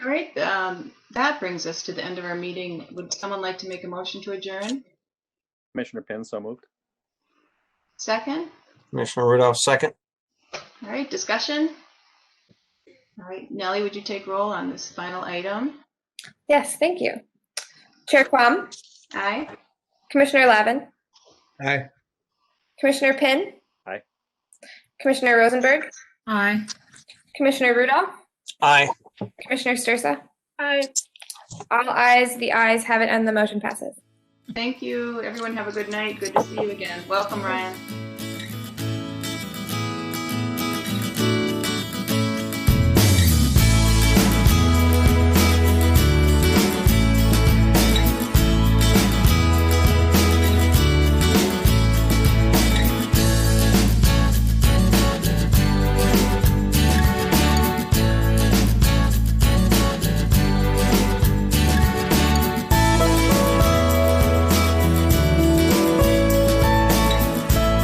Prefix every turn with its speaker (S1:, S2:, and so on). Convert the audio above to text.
S1: All right, um, that brings us to the end of our meeting. Would someone like to make a motion to adjourn?
S2: Commissioner Pin, so moved.
S1: Second?
S3: Commissioner Rudolph, second.
S1: All right, discussion? All right, Nellie, would you take roll on this final item?
S4: Yes, thank you. Chair Quam,
S1: Aye?
S4: Commissioner Lavin,
S5: Aye.
S4: Commissioner Pinn.
S2: Aye.
S4: Commissioner Rosenberg,
S6: Aye.
S4: Commissioner Rudolph,
S3: Aye.
S4: Commissioner Stursa.
S6: Aye.
S4: All eyes, the ayes have it, and the motion passes.
S1: Thank you. Everyone have a good night. Good to see you again. Welcome, Ryan.